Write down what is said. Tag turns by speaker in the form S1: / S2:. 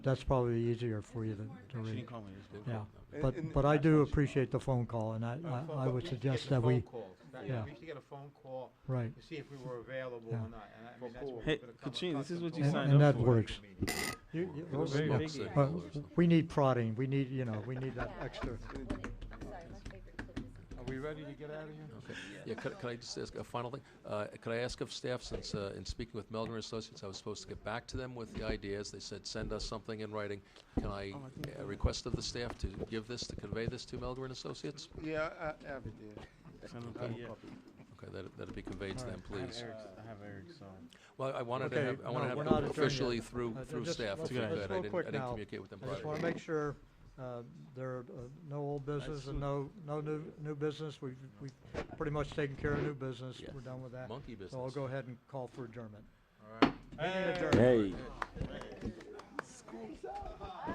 S1: that's probably easier for you than to
S2: She
S1: read.
S2: didn't call me, it was good.
S1: Yeah,
S3: And-
S1: but,
S3: and-
S1: but I do appreciate the phone call, and I,
S4: Uh, phone-
S1: I I
S4: but
S1: would
S4: we used to
S1: suggest
S4: get the
S1: that
S4: phone
S1: we,
S4: calls. Back-
S1: yeah.
S4: We used to get a phone call
S1: right,
S4: to see if we were available
S1: Yeah.
S4: or not, and I I mean, that's what
S2: Hey,
S4: we've become
S2: Kachin, this is
S4: accustomed
S2: what
S4: to.
S2: you
S1: And-
S2: signed
S1: and
S2: up
S1: that
S2: for.
S1: works. You- you-
S2: It was
S1: oh,
S2: very
S1: yeah,
S2: big.
S1: but we need prodding, we need, you know, we need that extra.
S5: I'm sorry, my favorite clip is.
S4: Are we ready to get out of here?
S3: Okay. Yeah, could, could I just ask a final thing? Uh, could I ask of staff, since, uh, in speaking with Melgren Associates, I was supposed to get back to them with the ideas. They said, send us something in writing. Can
S1: Oh,
S3: I, uh, request of the staff to give this, to convey this to Melgren Associates?
S6: Yeah, I, I ever did.
S2: Send them to- yeah.
S3: Okay, that, that'd be conveyed to them,
S2: I have
S3: please.
S2: Eric's- I have Eric's, so.
S3: Well, I wanted to
S1: Okay,
S3: have, I wanna
S1: no,
S3: have
S1: we're
S3: them
S1: not adjourned yet.
S3: officially through,
S1: Uh,
S3: through
S1: just-
S3: staff
S1: let's-
S3: to do
S2: let's
S3: that.
S1: go
S3: I didn't,
S1: quick
S3: I didn't
S1: now.
S3: communicate with them
S1: I just
S3: prior.
S1: wanna make sure, uh, there are uh, no old business and no, no new, new business, we've, we've pretty much taken care of new business,
S3: Yeah.
S1: we're done with that.
S3: Monkey
S1: So I'll
S3: business.
S1: go ahead and call for adjournment.
S4: All right.
S1: Meeting adjourned.
S7: Hey.